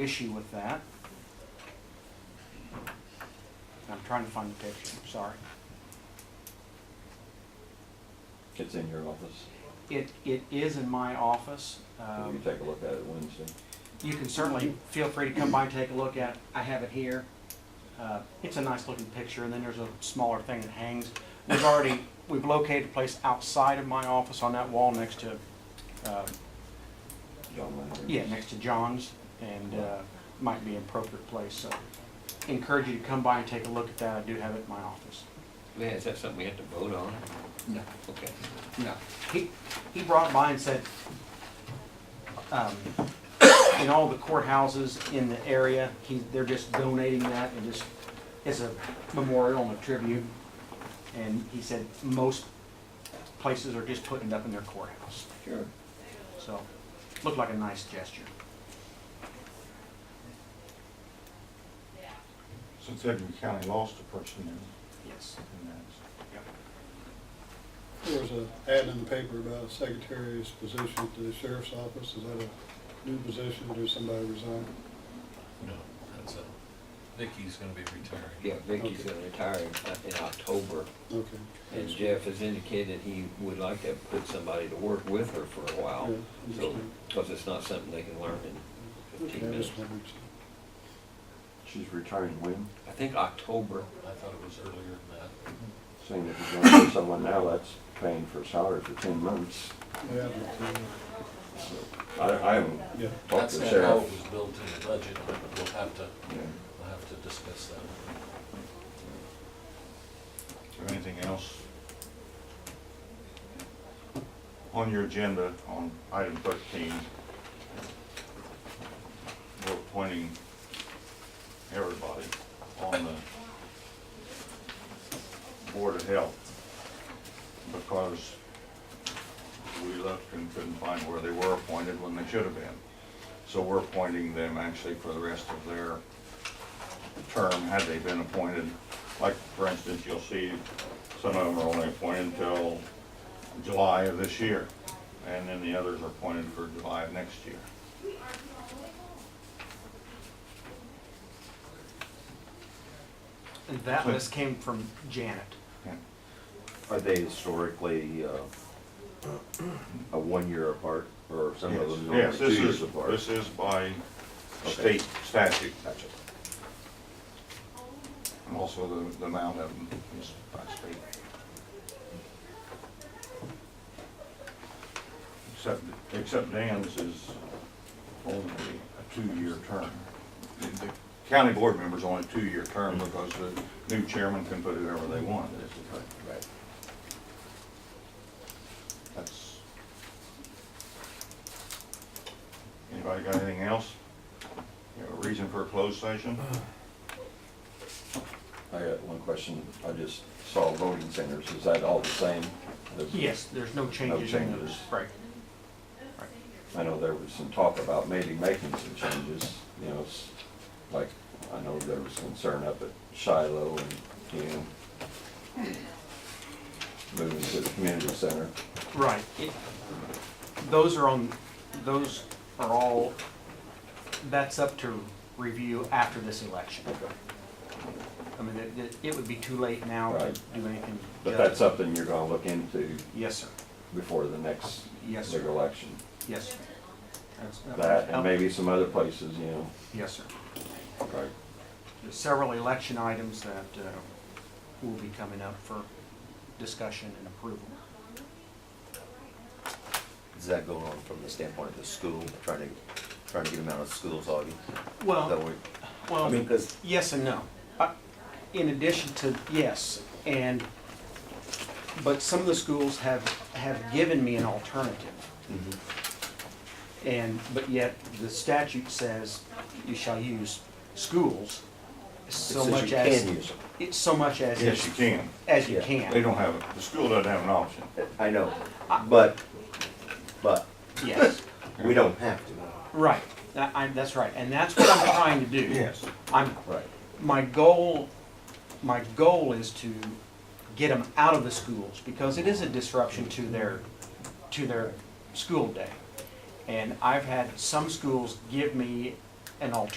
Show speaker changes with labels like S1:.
S1: issue with that. I'm trying to find the picture, I'm sorry.
S2: It's in your office.
S1: It, it is in my office.
S2: Will you
S1: Um,
S2: take a look at it Wednesday?
S1: You can certainly feel free to come by and take a look at, it. I have it here. Uh, It's a nice looking picture, and then there's a smaller thing that hangs. We've already, we've located a place outside of my office on that wall next to, uh,
S2: John Lander?
S1: yeah, next to John's, and uh, might be an appropriate place, so encourage you to come by and take a look at that, I do have it in my office.
S3: Man, is that something we have to vote on?
S1: No.
S3: Okay.
S1: No, he, he brought by and said, um, in all the courthouses in the area, he, they're just donating that and just, it's a memorial and a tribute. And he said most places are just putting it up in their courthouse,
S2: Sure.
S1: so looked like a nice gesture.
S4: Since Edmond County lost a person in,
S1: Yes.
S4: in that.
S5: There was a ad in the paper about a secretary's position at the sheriff's office. Is that a new position? Did somebody resign?
S6: No, that's a, Vicky's gonna be retiring.
S3: Yeah, Vicky's gonna retire in- in October,
S5: Okay.
S3: and Jeff has indicated he would like to put somebody to work with her for a while.
S5: Yeah,
S3: So,
S5: understand.
S3: because it's not something they can learn in
S5: Okay,
S3: fifteen
S5: I
S3: minutes.
S5: just wondered.
S2: She's retiring when?
S3: I think October,
S6: I thought it was earlier than that.
S2: Saying if you're gonna pay someone now, that's paying for salary for ten months.
S5: Yeah, but, uh,
S2: I, I haven't
S5: Yeah,
S2: talked
S6: That's
S2: to
S6: not
S2: the
S6: how it
S2: sheriff.
S6: was built in the budget, but we'll have to,
S2: Yeah.
S6: we'll have to discuss that.
S4: Is there anything else on your agenda on item thirteen? We're appointing everybody on the Board of Health because we left and couldn't find where they were appointed when they should have been. So we're appointing them actually for the rest of their term had they been appointed. Like, for instance, you'll see some of them are only appointed until July of this year, and then the others are appointed for July of next year.
S1: And that
S4: So-
S1: list came from Janet.
S4: Yeah.
S7: Are they historically uh, a one-year apart, or some of them are
S4: Yes,
S7: two
S4: this
S7: years
S4: is,
S7: apart?
S4: this is by
S7: Okay.
S4: state statute,
S7: Gotcha.
S4: and also the, the amount of them is by state. Except, except Dan's is only a two-year term. The- the County board member's only a two-year term because the new chairman can put it wherever they want, is the fact.
S7: Right.
S4: That's. Anybody got anything else? You have a reason for a closed session?
S2: I got one question. I just saw voting centers. Is that all the same? There's-
S1: Yes, there's no changes in those.
S2: changes.
S1: Right.
S2: I know there was some talk about maybe making some changes, you know, s- like, I know there was concern up at Shiloh and, you know, moving to the community center.
S1: Right. It- Those are on, those are all, that's up to review after this election. I mean, it- it, it would be too late now to
S2: Right.
S1: do anything.
S2: But that's something you're gonna look into
S1: Yes, sir.
S2: before the next
S1: Yes,
S2: big
S1: sir.
S2: election.
S1: Yes. sir. That's- uh, um,
S2: That and maybe some other places, you know.
S1: Yes, sir.
S2: Right.
S1: There's several election items that uh, will be coming up for discussion and approval.
S7: Is that going on from the standpoint of the school, trying to, trying to get them out of schools, Augie? That
S1: Well,
S7: we-
S1: well.
S7: I mean, because
S1: Yes and no. I- In addition to yes, and, but some of the schools have, have given me an alternative.
S7: Mm-hmm.
S1: And, but yet the statute says you shall use schools so
S7: since
S1: much
S7: you
S1: as.
S7: can use them.
S1: It's so much as,
S4: Yes, you
S1: as
S4: can.
S1: you
S7: Yeah.
S4: They
S1: can,
S4: don't have, a- the school doesn't have an option.
S7: I know, but, but
S1: yes,
S7: we don't have to.
S1: right. That- I- that's right, and that's what I'm trying to do. I'm,
S7: Right.
S1: my goal, my goal is to get them out of the schools because it is a disruption to their, to their school day. And I've had some schools give me an alternative